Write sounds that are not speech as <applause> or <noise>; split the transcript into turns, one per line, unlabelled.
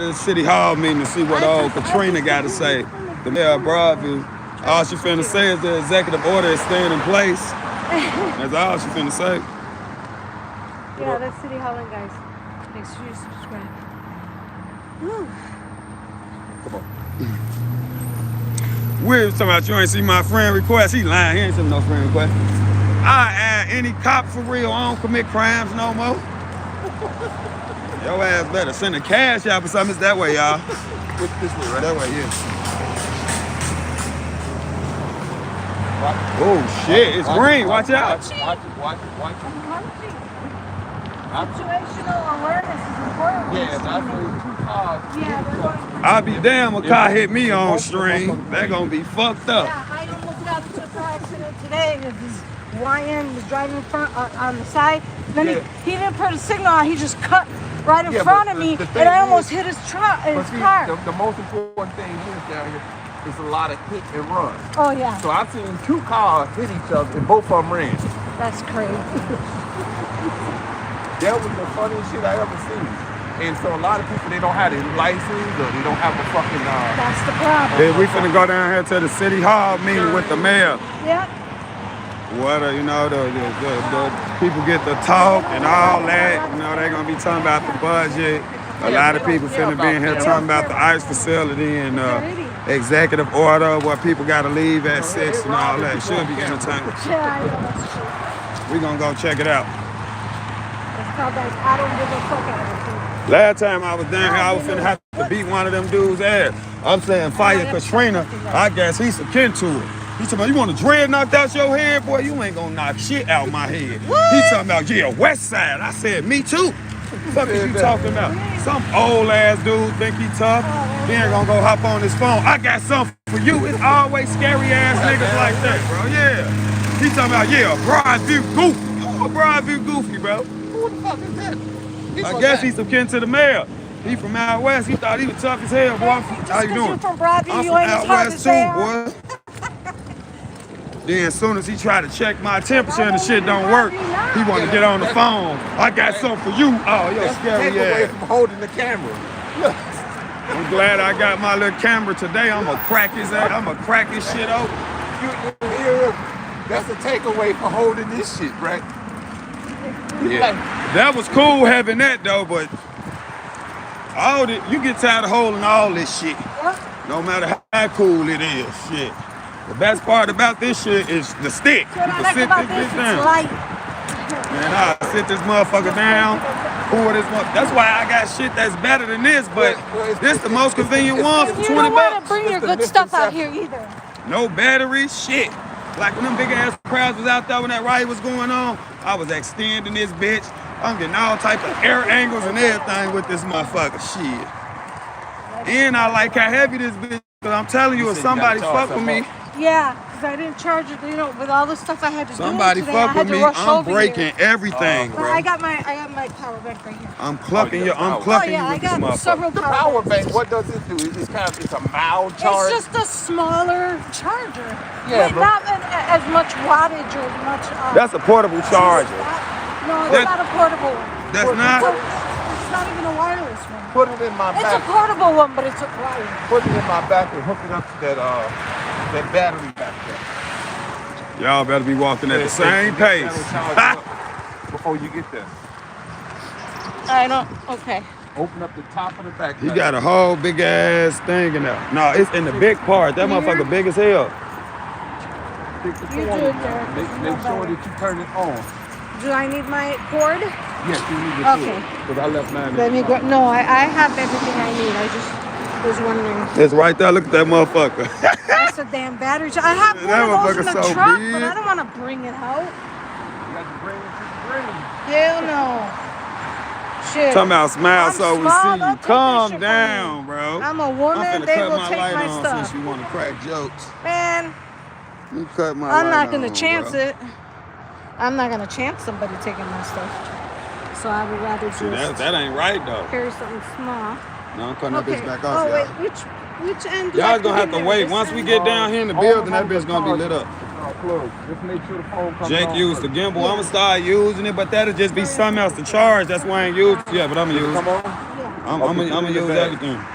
The City Hall meeting to see what old Katrina got to say. The mayor of Broadview, all she finna say is the executive order is staying in place. That's all she finna say.
Yeah, that's City Hall, and guys. Make sure you subscribe.
We're talking about you ain't see my friend request. He lying. He ain't seen no friend request. I add any cop for real. I don't commit crimes no more. Your ass better send a cash app or something. It's that way, y'all.
This way, right?
That way, yeah. Oh shit, it's green. Watch out.
Watch, watch, watch, watch.
Situational awareness is important.
Yeah, that's what two cars.
Yeah, they're going.
I'll be damn a car hit me on stream. They gonna be fucked up.
Yeah, I almost got into a car accident today. This is YN was driving in front uh, on the side. Then
Yeah.
he, he didn't put a signal on. He just cut right in
Yeah,
front
but
of
the-
me,
the thing
and I
is-
almost hit his truck, his
But see,
car.
the, the most important thing is down here is a lot of hit and run.
oh yeah,
So I've seen two cars hit each other and both of them ran.
that's crazy.
That was the funniest shit I ever seen. And so a lot of people, they don't have their license or they don't have a fucking, uh,
That's the problem.
Yeah, we finna go down here to the city hall meeting with the mayor.
Yeah.
What uh, you know, the, the, the, the people get the talk and all that. You know, they gonna be talking about the budget. A lot of people finna be in here talking about the ICE facility and uh, executive order, where people gotta leave at six and all that. Should be entertaining.
Yeah, I know that's true.
We gonna go check it out.
It's called like I don't give a fuck attitude.
Last time I was down here, I was finna have to beat one of them dudes' ass. I'm saying fire Katrina. I guess he's akin to it. He talking about you want a dread knocked out your head, boy. You ain't gonna knock shit out my head. He talking about yeah, West Side. I said me too. Fuck is you talking about? Some old ass dude think he tough. He ain't gonna go hop on his phone. I got something for you. It's always scary ass niggas like that, bro. Yeah. He talking about yeah, Broadview goofy. Who a Broadview goofy, bro?
who the fuck is that? He's
I
from
guess
that.
he's some kin to the mayor. He from out west. He thought he was tough as hell, boy. I'm from-
Just
how you
'cause
doing?
you from Broadview,
I'm
you
from
ain't
out
tough
west
as
too,
hell.
boy. Then as soon as he tried to check my temperature and the
Why
shit
don't
don't
you
work,
not?
he wanted to get on the phone. I got something for you. Oh, you're
That's the
scary
takeaway
ass.
from holding the camera.
I'm glad I got my little camera today. I'm gonna crack his ass. I'm gonna crack his shit open.
You, you hear him? That's the takeaway for holding this shit, right?
Yeah. That was cool having that though, but all the, you get tired of holding all this shit. No matter how cool it is, shit. The best part about this shit is the stick.
What
you
I
can
like
sit
about
this bitch
this, it's
down.
light.
Man, I sit this motherfucker down. Pour this one. That's why I got shit that's better than this, but
Well, well, it's-
this the most convenient one for
You
20
don't want
bucks.
to bring your
It's the
good stuff out here
misconception.
either.
No battery, shit. Like when them big ass crowds was out there when that riot was going on, I was extending this bitch. I'm getting all type of air angles and everything with this motherfucker. Shit. And I like how heavy this bitch. Cause I'm telling you, if
said you
somebody
gotta charge
fuck with me,
something
Yeah, because I didn't charge it. You know, with all the stuff I had to
somebody
do today, I
fuck
had
with
to
me,
rush
I'm
over
breaking
here.
everything,
But
bro.
I got my I got my power bank right here.
I'm clucking
Oh,
you.
yeah,
I'm
power.
Oh
clucking
yeah, I
you with this
got
motherfucker.
several
The
power,
power
banks.
bank, what does it do? It's kind of, it's a mild
It's
charge.
just a smaller charger.
Yeah,
With
but-
not an, as much wattage or as much. Uh,
That's a portable charger.
No, it's
That-
not a portable one.
That's
It's,
not.
a- it's not even a wireless one.
Put it in my
It's a
back.
portable one, but it's a wireless.
Put it in my back and hook it up to that, uh, that battery back there.
Y'all better be walking at the
It's-
same
it's-
pace. <laughs>
it's gotta charge up Before you get there,
I don't. Okay.
open up the top of the back.
He
pack.
got a whole big ass thing in there. No, it's in the big part. That
Here?
motherfucker big as hell.
Stick the
You
phone
do it,
in there.
Derek.
Make,
You
make
know
sure
better.
that you turn it on.
Do I need my cord?
Yes, you need to do
Okay.
it. Because I left mine. in
Let me
the
go.
car.
No, I, I have everything I need. I just was wondering.
It's right there. Look at that motherfucker.
<laughs> That's a damn battery. charger. I have
That
one of those in the
motherfucker's so
truck, but
big.
I don't want to bring it out.
You got to bring it to the ring.
Hell no. Shit.
Talking about smile
I'm
so we
small.
see you.
Don't take that shit
Calm
from
down, bro.
I'm a woman.
I'm finna
They
cut
will
my
take
light
my
on
stuff.
since you want to crack jokes.
Man,
You cut my
I'm
light
not gonna
on,
chance
bro.
it. I'm not gonna chance somebody taking my stuff. So I would rather
See, that,
just
that ain't right, though.
carry something small.
No, I'm cutting that
Okay.
bitch back
oh
off,
wait,
y'all.
which which end? do I
Y'all gonna have
put
to
in there?
wait.
This
Once
end?
we get down here in the
Hold
building, that
on to
bitch
the
gonna
car.
be lit up.
No, plug. Just make sure the phone comes
Jake
on
used the
first.
gimbal. I'ma start using it, but that'll just be something else to charge. That's why I ain't used. Yeah, but I'ma use
Come
it.
on.
Yeah.
I'm,
or
I'm, gonna- I'm gonna
completely
use
bad.
everything.